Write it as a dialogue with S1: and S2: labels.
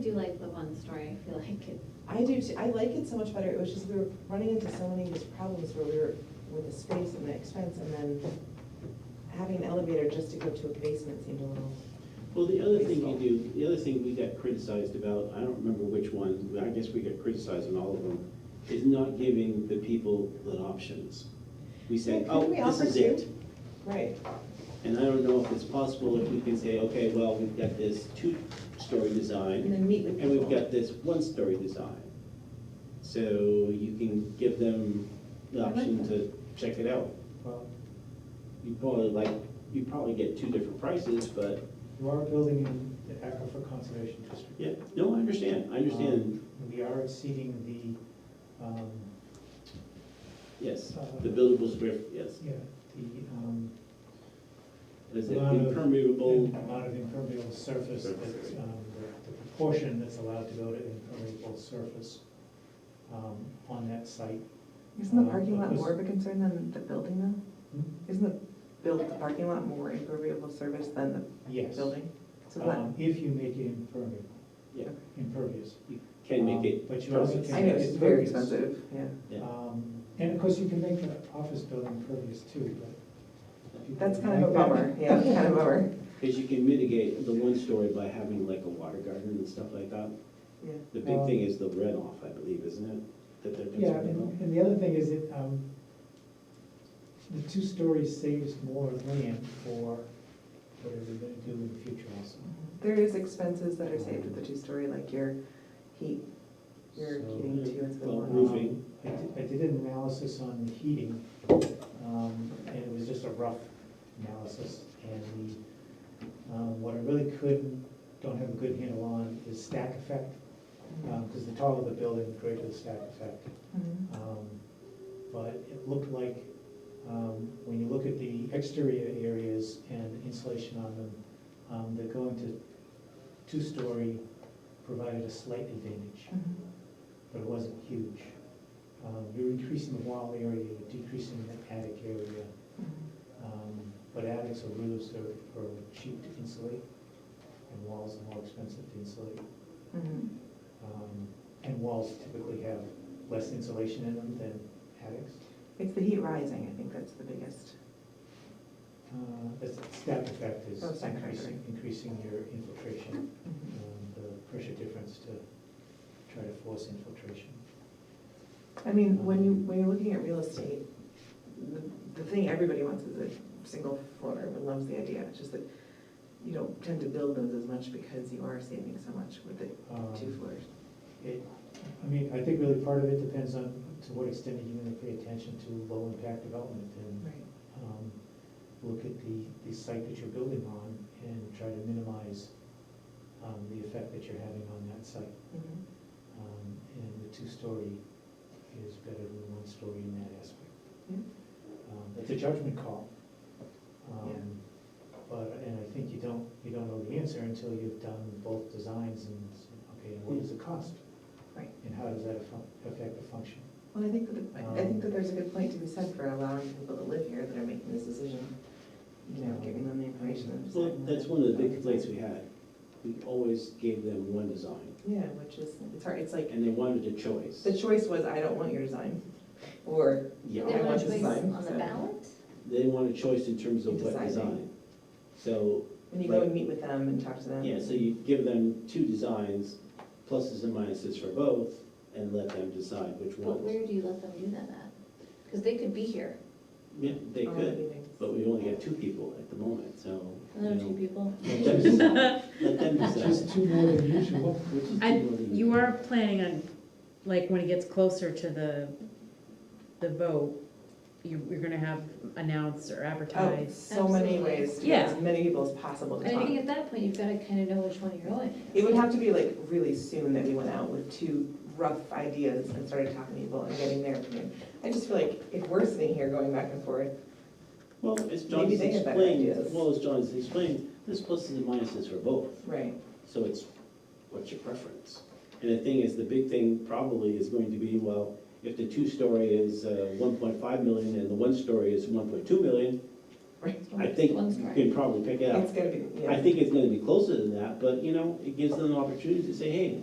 S1: do like the one story, I feel like it,
S2: I do, too. I like it so much better, it was just, we were running into so many of these problems where we were with the space and the expense, and then having an elevator just to go to a basement seemed a little,
S3: Well, the other thing you do, the other thing we got criticized about, I don't remember which one, but I guess we got criticized on all of them, is not giving the people the options. We say,
S2: Yeah, couldn't
S3: oh,
S2: we
S3: this
S2: offer
S3: is it.
S2: two? right,
S3: And I don't know if it's possible if we can say, okay, well, we've got this two-story
S2: and
S3: design,
S2: then meet with
S3: and we've
S2: people.
S3: got this one-story design. So you can give them the option to check it out.
S4: Well,
S3: You probably like, you probably get two different prices, but,
S4: you are building in the Aquifer Conservation District.
S3: yeah, no, I understand, I understand,
S4: Um, We are exceeding the, um,
S3: yes, the buildable square, yes.
S4: yeah, the, um,
S3: Is it
S4: Lot of- the
S3: impermeable?
S4: amount of impermeable surface
S3: Surface
S4: that,
S3: area.
S4: um, the proportion that's allowed to go to impermeable surface, um, on that site.
S5: Isn't
S4: Uh,
S5: the parking lot
S4: because-
S5: more of a concern than the building though? Isn't the build, the parking lot more impervious service than the
S4: Yes.
S5: building? So
S4: Um,
S5: that,
S4: if you make it impermeable,
S3: Yeah,
S4: impervious.
S3: you can make
S4: Um,
S3: it.
S4: But you also
S3: perfect.
S4: can
S5: I know, it's very
S4: impervious.
S5: expensive, yeah.
S3: Yeah.
S4: Um, And of course, you can make the office building pervious too, but. people
S5: That's kind of a
S4: like that.
S5: bummer, yeah, it's kind of a bummer,
S3: Because you can mitigate the one story by having like a water garden and stuff like that.
S5: yeah.
S3: The big
S4: Um,
S3: thing is the runoff, I believe, isn't it? That they're
S4: Yeah,
S3: concerned about.
S4: and, and the other thing is that, um, the two stories saves more land for whatever they're gonna do in the future also.
S5: There is expenses that are saved with the two-story, like your heat, your
S4: So,
S5: heating too, it's
S3: well,
S5: been
S4: um,
S5: one.
S3: Roofing.
S4: I did, I did an analysis on the heating, um, and it was just a rough analysis, and the, um, what I really couldn't, don't have a good handle on is stack effect, um, cause the taller the building, the greater the stack effect.
S5: Mhm.
S4: Um, But it looked like, um, when you look at the exterior areas and insulation on them, um, they're going to two-story provided a slight advantage,
S5: Mhm.
S4: but it wasn't huge. Um, You're increasing the wall area, you're decreasing the attic area,
S5: Mhm.
S4: um, but attics or roofs are are cheap to insulate, and walls are more expensive to insulate.
S5: Mhm.
S4: Um, And walls typically have less insulation in them than attics.
S5: It's the heat rising, I think that's the biggest.
S4: Uh, The stack effect is
S5: Oh, stack effect,
S4: increasing, increasing your infiltration,
S5: Mhm.
S4: um, the pressure difference to try to force infiltration.
S5: I mean, when you, when you're looking at real estate, the, the thing everybody wants is a single floor, everyone loves the idea, it's just that you don't tend to build those as much because you are saving so much with the
S4: Um,
S5: two floors.
S4: It, I mean, I think really part of it depends on to what extent are you gonna pay attention to low-impact development and um, look at the, the site that you're building on and try to minimize um, the effect that you're having on that site.
S5: Mhm.
S4: Um, And the two-story is better than the one-story in that aspect.
S5: Yeah.
S4: Um, It's a judgment call. Um,
S5: Hmm? Yeah.
S4: But, and I think you don't, you don't know the answer until you've done both designs and, s- okay, and what is the cost?
S5: Right.
S4: And how does that affu- affect the function?
S5: Well, I think that, the- I I
S3: Um,
S5: think that there's a good point to be said for allowing people to live here that are making this decision, you know, giving them the information and
S3: Well,
S5: deciding
S3: that's
S5: that-
S3: one of the big complaints we had. We always gave them one design,
S5: Yeah, which is, it's hard, it's like,
S3: and they wanted a choice.
S5: the choice was, I don't want your design, or
S3: Yeah,
S1: they
S5: I
S1: want
S5: want
S1: to
S5: this
S1: place
S5: sign,
S1: on the
S5: so-
S1: ballot?
S3: they want a choice in terms of what
S5: Deciding.
S3: design. So,
S5: when you go and meet with them and talk to them.
S3: yeah, so you give them two designs, pluses and minuses for both, and let them decide which
S1: But
S3: ones.
S1: where do you let them do that at? Because they could be here,
S3: Yeah, they
S5: all
S3: could.
S5: meetings.
S3: But we only have two people at the moment, so. you
S1: another two
S3: know,
S1: people.
S3: Let them decide. Let them decide.
S4: Just two more than usual.
S3: Which is
S6: I-
S3: more than
S6: You are planning on, like, when it gets closer to the, the vote, you, you're gonna have announced or
S5: Oh,
S6: advertised.
S5: so many
S1: Absolutely.
S5: ways to
S6: Yeah.
S5: get as many people as possible
S1: And
S5: to
S1: I think
S5: talk.
S1: at that point, you've got to kind of know which one you're going.
S5: It would have to be like really soon that we went out with two rough ideas and started talking to people and getting their opinion. I just feel like if we're sitting here going back and forth,
S3: Well, as
S5: Maybe
S3: John's
S5: they have better
S3: explained,
S5: ideas.
S3: well, as John's explained, there's pluses and minuses for both,
S5: right,
S3: so it's, what's your preference? And the thing is, the big thing probably is going to be, well, uh, if the two-story is one point five million and the one-story is one point two million, I think
S1: One
S3: you
S1: story.
S3: can probably pick it up.
S5: It's gonna be, yeah.
S3: I think it's gonna be closer than that, but, you know, it gives them an opportunity to say, hey,